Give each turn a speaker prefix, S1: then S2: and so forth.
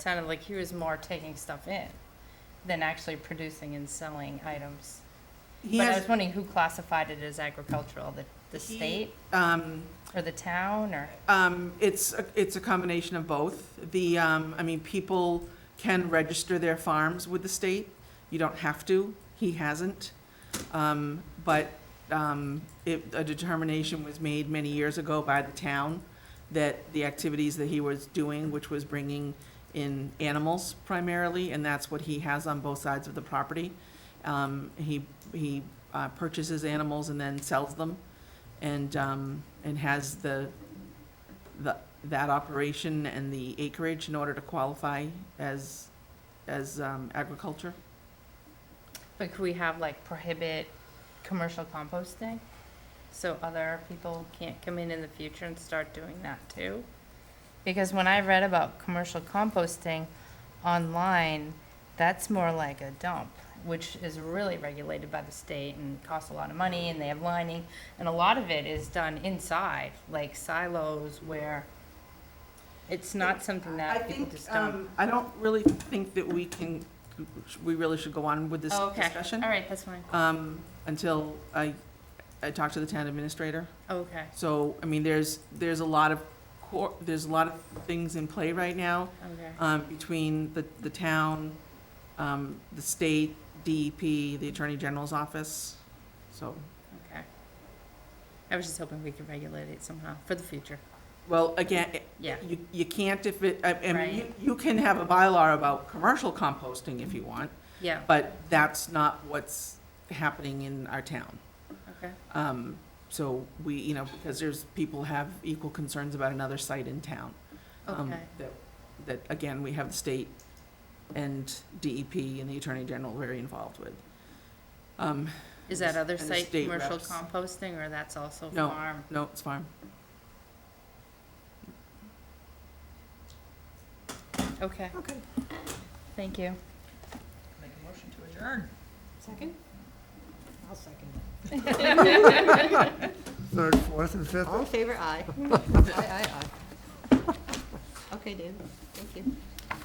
S1: sounded like he was more taking stuff in than actually producing and selling items.
S2: He
S1: But I
S2: has,
S1: was wondering who classified it as agricultural, the, the
S2: He-
S1: state
S2: um,
S1: or the town or?
S2: um, it's, a- it's a combination of both. The, um, I mean, people can register their farms with the state. You don't have to. He hasn't. Um, but, um, it, a determination was made many years ago by the town that the activities that he was doing, which was bringing in animals primarily, and that's what he has on both sides of the property. Um, he, he, uh, purchases animals and then sells them and, um, and has the, the, that operation and the acreage in order to qualify as, as um, agriculture?
S1: But could we have like prohibit commercial composting? So other people can't come in in the future and start doing that too? Because when I read about commercial composting online, that's more like a dump, which is really regulated by the state and costs a lot of money and they have lining. And a lot of it is done inside, like silos where it's not something that people just don't.
S2: I don't really think that we can, we really should go on with this
S1: Oh, Okay,
S2: discussion
S1: all right, that's fine.
S2: um, until I, I talk to the town administrator.
S1: Okay,
S2: So, I mean, there's, there's a lot of, cor- there's a lot of things in play right now
S1: okay.
S2: um, between the, the town, um, the state, DEP, the Attorney General's office, so.
S1: Okay. I was just hoping we could regulate it somehow for the future.
S2: Well, again,
S1: Yeah.
S2: you, you can't if it, I, I mean, you,
S1: Right.
S2: you can have a bylaw about commercial composting if you want,
S1: Yeah,
S2: but that's not what's happening in our town.
S1: okay.
S2: Um, so we, you know, because there's, people have equal concerns about another site in town. um,
S1: Okay.
S2: That, that, again, we have the state and DEP and the Attorney General very involved with. Um,
S1: Is that other
S2: and the
S1: site
S2: state
S1: commercial
S2: reps.
S1: composting or that's also
S2: No.
S1: farm?
S2: no, it's farm.
S1: Okay,
S3: Okay.
S1: thank you.
S3: Make a motion to adjourn.
S4: Second? I'll second it.
S5: third, fourth, and fifth.
S4: All in favor, aye. Aye, aye, aye. Okay, David, thank you.